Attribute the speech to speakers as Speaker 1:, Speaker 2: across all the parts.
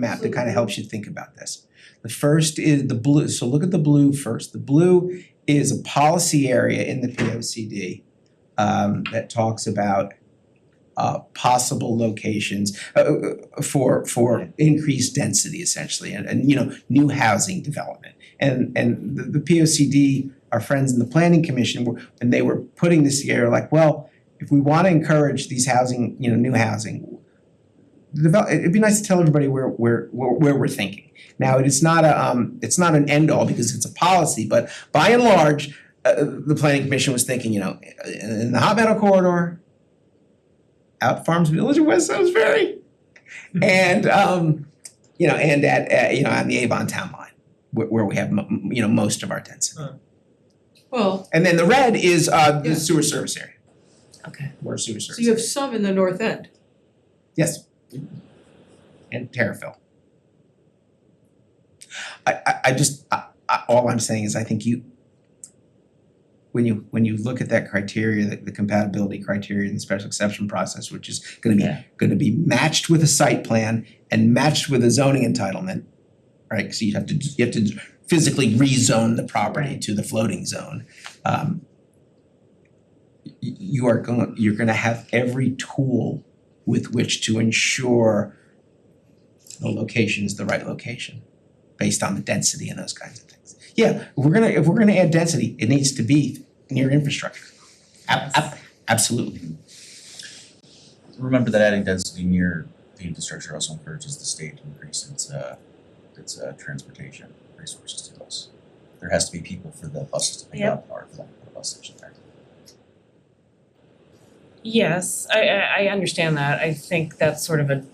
Speaker 1: map that kind of helps you think about this. The first is the blue, so look at the blue first. The blue is a policy area in the P O C D um that talks about uh possible locations uh for for increased density essentially and and you know, new housing development. And and the the P O C D, our friends in the planning commission were, when they were putting this together, like, well, if we wanna encourage these housing, you know, new housing, develop, it'd be nice to tell everybody where where where where we're thinking. Now, it is not a um, it's not an end all because it's a policy, but by and large, uh the planning commission was thinking, you know, in in the hot metal corridor, out Farms Village and West Salisbury, and um, you know, and at at, you know, on the Avon Town Line, where where we have mo- m- you know, most of our density.
Speaker 2: Well,
Speaker 1: And then the red is uh the
Speaker 2: Yeah.
Speaker 1: sewer service area,
Speaker 3: Okay.
Speaker 1: where sewer service.
Speaker 2: so you have
Speaker 1: area.
Speaker 2: some in the north end.
Speaker 1: Yes. And Terrafil. I I I just, I I all I'm saying is I think you when you when you look at that criteria, the the compatibility criteria and the special exception process, which is gonna be
Speaker 3: Yeah.
Speaker 1: gonna be matched with a site plan and matched with a zoning entitlement, right? So you have to you have to physically rezone the property
Speaker 3: Right.
Speaker 1: to the floating zone. Um y- you are going, you're gonna have every tool with which to ensure the location is the right location based on the density and those kinds of things. Yeah, if we're gonna, if we're gonna add density, it needs to be near infrastructure. Ab- ab- absolutely.
Speaker 4: remember that adding density near the infrastructure also encourages the state to increase its uh its uh transportation resources to us. There has to be people for the buses to pick up or for them to put a bus station there.
Speaker 3: Yes, I I I understand that. I think that's sort of a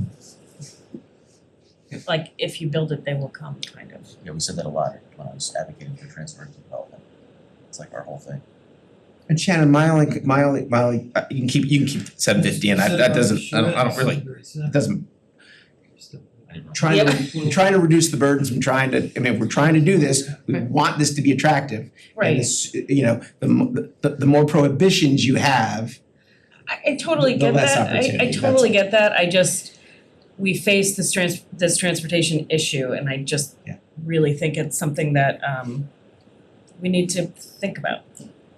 Speaker 3: like if you build it, they will come kind of.
Speaker 4: Yeah, we said that a lot when I was advocating for transformative development. It's like our whole thing.
Speaker 1: And Shannon, my only, my only, my only, uh, you can keep, you can keep seven fifty and that that doesn't, I don't, I don't really, it doesn't, trying to, trying to reduce the burdens and trying to, I mean, if we're trying to do this, we
Speaker 2: Right.
Speaker 1: want this to be attractive. And this, you know, the mo- the the more prohibitions you have,
Speaker 3: I I totally
Speaker 1: The
Speaker 3: get
Speaker 1: less
Speaker 3: that, I I
Speaker 1: opportunity,
Speaker 3: totally
Speaker 1: that's-
Speaker 3: get that, I just, we face this trans, this transportation issue and I just
Speaker 1: Yeah.
Speaker 3: really think it's something that um we need to think about.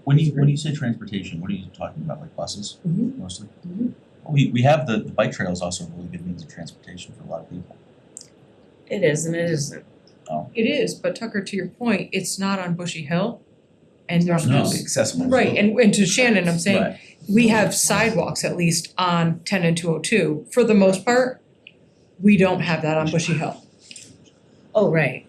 Speaker 4: When you when you say transportation, what are you talking about? Like buses
Speaker 3: Mhm.
Speaker 4: mostly?
Speaker 3: Mhm.
Speaker 4: We we have the the bike trail is also a really good means of transportation for a lot of people.
Speaker 3: It is and it isn't.
Speaker 2: It is, but Tucker, to your point, it's not on Bushy Hill. And there's
Speaker 4: No.
Speaker 1: it's accessible.
Speaker 2: Right, and and to Shannon, I'm saying,
Speaker 4: Right.
Speaker 2: we have sidewalks at least on ten and two oh two, for the most part. We don't have that on Bushy Hill.
Speaker 3: Oh, right.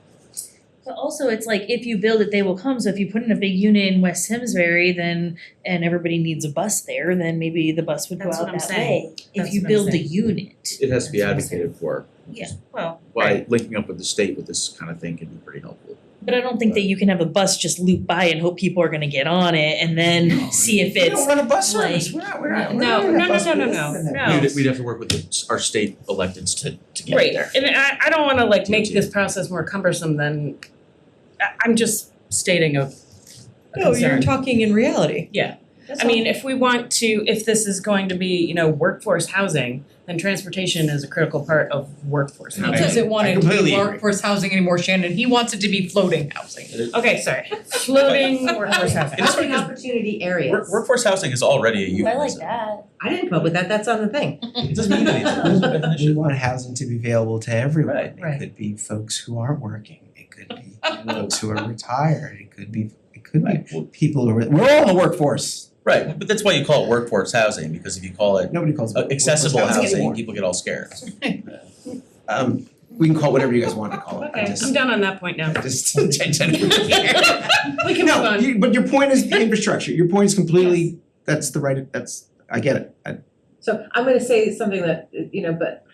Speaker 5: But also, it's like if you build it, they will come. So if you put in a big unit in West Simsbury, then and everybody needs a bus there, then maybe the bus would go
Speaker 3: That's
Speaker 5: out
Speaker 3: what I'm
Speaker 5: that
Speaker 3: saying.
Speaker 5: way.
Speaker 3: That's
Speaker 5: If you
Speaker 3: what I'm
Speaker 5: build a
Speaker 3: saying.
Speaker 5: unit,
Speaker 6: It has to be
Speaker 3: That's what I'm
Speaker 6: advocated for. which is
Speaker 3: Well,
Speaker 6: Why linking up with the state with this kind of thing can be pretty helpful.
Speaker 5: but I don't think that you can have a bus just loop by and hope people are going to get on it and then see if
Speaker 1: We
Speaker 5: it's
Speaker 1: don't run a bus service, we're not, we're not, we're not running
Speaker 3: No,
Speaker 1: a
Speaker 3: no, no,
Speaker 1: bus
Speaker 3: no, no,
Speaker 1: service.
Speaker 3: no, no.
Speaker 6: We'd we'd have to work with the s- our state electeds to to get
Speaker 3: Right,
Speaker 6: there.
Speaker 3: and I I don't wanna like make
Speaker 6: TNT.
Speaker 3: this process more cumbersome than, I I'm just stating a a
Speaker 2: No, you're
Speaker 3: concern.
Speaker 2: talking in reality.
Speaker 3: I mean, if we want to, if this is going to be, you know, workforce housing, then transportation is a critical part of workforce
Speaker 1: And
Speaker 2: He
Speaker 3: housing.
Speaker 2: doesn't want
Speaker 1: I
Speaker 2: it to
Speaker 1: completely
Speaker 2: be
Speaker 1: agree.
Speaker 2: workforce housing anymore, Shannon, he wants it to be floating housing.
Speaker 3: Okay, sorry, floating workforce housing.
Speaker 4: It's funny
Speaker 7: Housing
Speaker 4: 'cause
Speaker 7: opportunity
Speaker 4: Work-
Speaker 7: areas.
Speaker 4: workforce housing is already a
Speaker 5: I
Speaker 4: euphemism.
Speaker 5: like that.
Speaker 7: I didn't come up with that, that's on the thing.
Speaker 4: It doesn't mean anything, there's no
Speaker 1: We
Speaker 4: definition.
Speaker 1: want housing to be available to everyone,
Speaker 4: Right.
Speaker 1: it could be folks who aren't working, it could be folks who are retired, it could be, it could be
Speaker 4: Right, well,
Speaker 1: people who are, we're all in the workforce,
Speaker 4: right, but that's why you call it workforce housing, because if you call it
Speaker 1: nobody calls it
Speaker 4: uh, accessible
Speaker 1: workforce
Speaker 4: housing,
Speaker 1: anymore.
Speaker 4: people get all scared.
Speaker 1: Um, we can call it whatever you guys want to call it, I
Speaker 3: Okay,
Speaker 1: just.
Speaker 3: I'm done on that point now.
Speaker 1: I just change it.
Speaker 3: We can move
Speaker 1: No,
Speaker 3: on.
Speaker 1: you- but your point is the infrastructure, your point is completely, that's the right, that's, I get it, I-
Speaker 7: So I'm gonna say something that, you know, but,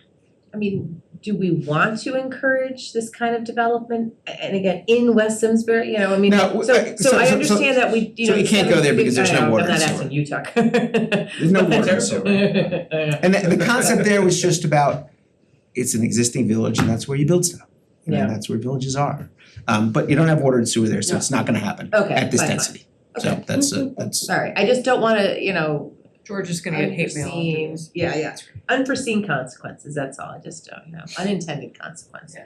Speaker 7: I mean, do we want to encourage this kind of development? A- And again, in West Simsbury, you know, I mean,
Speaker 1: No, w-
Speaker 7: so
Speaker 1: I- so-
Speaker 7: so I
Speaker 1: so- so-
Speaker 7: understand that we, you
Speaker 1: so
Speaker 7: know.
Speaker 1: you can't go there because there's no
Speaker 7: I know,
Speaker 1: water and
Speaker 7: uh, I'm
Speaker 1: sewer.
Speaker 7: not asking you, Tuck.
Speaker 1: There's no water and sewer. And the, the concept there was just about, it's an existing village and that's where you build stuff. You know,
Speaker 7: Yeah.
Speaker 1: that's where villages are. Um, but you don't have water and sewer there, so it's not gonna happen
Speaker 7: Okay,
Speaker 1: at this
Speaker 7: fine, fine.
Speaker 1: density. So
Speaker 7: Okay.
Speaker 1: that's a, that's,
Speaker 7: Sorry, I just don't wanna, you know,
Speaker 2: George is gonna get hate mail after
Speaker 7: Unforeseen-
Speaker 2: this.
Speaker 7: Yeah, yeah, unforeseen consequences, that's all, I just don't know, unintended consequences.